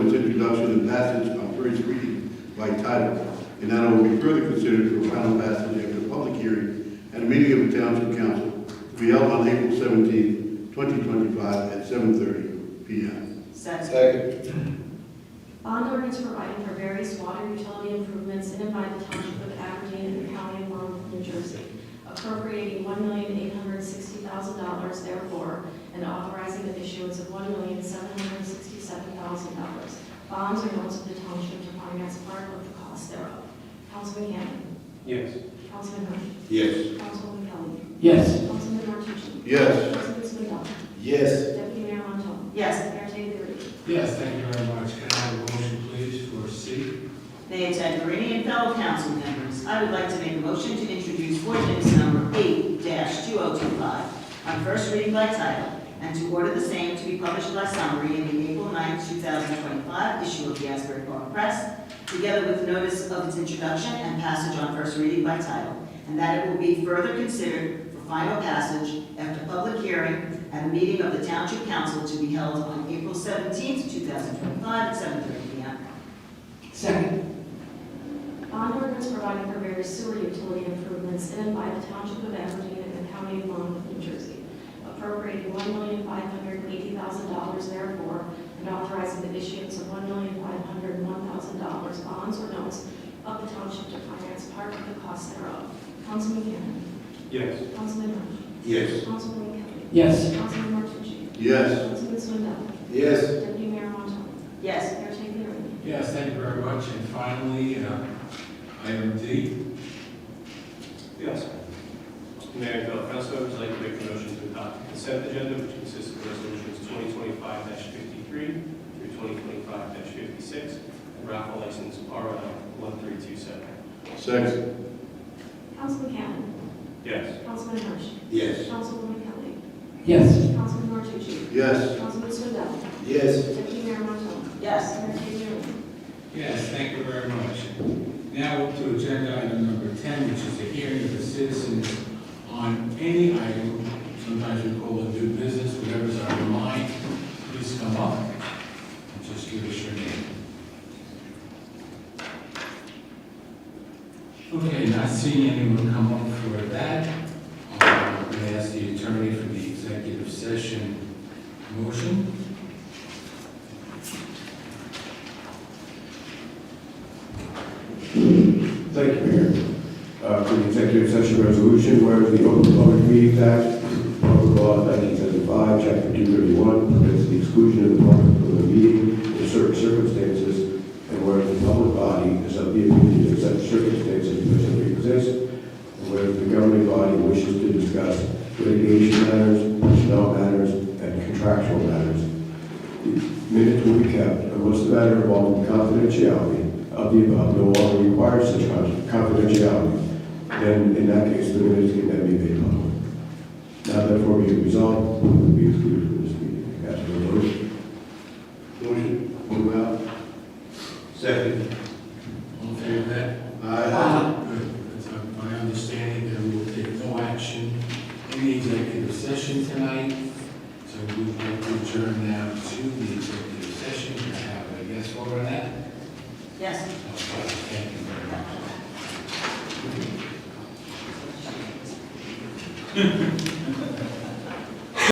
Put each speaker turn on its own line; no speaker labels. by title, and that I will be further considered for final passage after public hearing at a meeting of the Township Council to be held on April 17, 2025, at 7:30 PM.
Second.
Second.
Bond ordinance providing for various water utility improvements in and by the Township of Aberdeen and the County of Monmouth, New Jersey, appropriating one million eight hundred sixty thousand dollars therefore, and authorizing the issuance of one million seven hundred sixty-seven thousand dollars. Bonds or notes of the Township to finance part of the cost thereof. Councilman Gannon.
Yes.
Councilman Hurst.
Yes.
Councilman Kelly.
Yes.
Councilman Martucci.
Yes.
Councilman Swindell.
Yes.
Deputy Mayor Montal.
Yes.
Mayor Taylor.
Yes, thank you very much. Can I have a motion, please, for C?
They attend Meridian and fellow council members. I would like to make a motion to introduce ordinance number eight two oh two five on first reading by title and to order the same to be published by summary in the April 9, thousand twenty-five issue of the Asbury Park Press, together with notice of its introduction and passage on first reading by title, and that it will be further considered for final passage after public hearing at a meeting of the Township Council to be held on April 17, thousand twenty-five, at seven thirty P M.
Second.
Bond ordinance providing for various sewer utility improvements in and by the Township of Aberdeen and the County of Monmouth, New Jersey, appropriating one million five hundred eighty thousand dollars therefore, and authorizing the issuance of one million five hundred one thousand dollars bonds or notes of the Township to finance part of the cost thereof. Councilman Cannon.
Yes.
Councilman Rowland.
Yes.
Councilman Kelly.
Yes.
Councilman Martucci.
Yes.
Councilman Swindell.
Yes.
Deputy Mayor Montal.
Yes.
Mayor Taylor.
Yes, thank you very much. And finally, uh, item D.
Yes. Mayor and fellow council members, I'd like to make a motion to adopt the consent agenda, which consists of resolutions twenty twenty-five fifty-three through twenty twenty-five fifty-six, and raffle license RL one three two seven.
Second.
Councilman Cannon.
Yes.
Councilman Rowland.
Yes.
Councilwoman Kelly.
Yes.
Councilman Martucci.
Yes.
Councilman Swindell.
Yes.
Deputy Mayor Montal.
Yes.
Mayor Taylor.
Yes, thank you very much. Now up to agenda item number ten, which is a hearing of the citizens on any item. Sometimes we call it new business, whatever's on your mind, please come up. and Just give us your name. Okay, not seeing anyone come up for that. um, I'm going to ask the attorney for the executive session motion.
Thank you, Mayor. Uh, For the executive session resolution, whereas the Open Public Meetings Act, Public Law 1975, Chapter 231, permits the exclusion of the public from the meeting in certain circumstances, and whereas the public body is of the opinion that such circumstances presently exist, and whereas the governing body wishes to discuss litigation matters, personnel matters, and contractual matters, Minutes will be kept unless the matter involving confidentiality of the above no longer requires such con- confidentiality. Then, in that case, the minutes can then be made public. Now therefore be it resolved, we will be excluded from this meeting. Ask for a motion.
Motion, move out.
Second.
All in favor of that?
Aye.
Good. It's uh, my understanding that we will take no action in the executive session tonight, so we would like to adjourn now to the executive session. Can I have a yes vote on that?
Yes.
Okay, Thank you very much.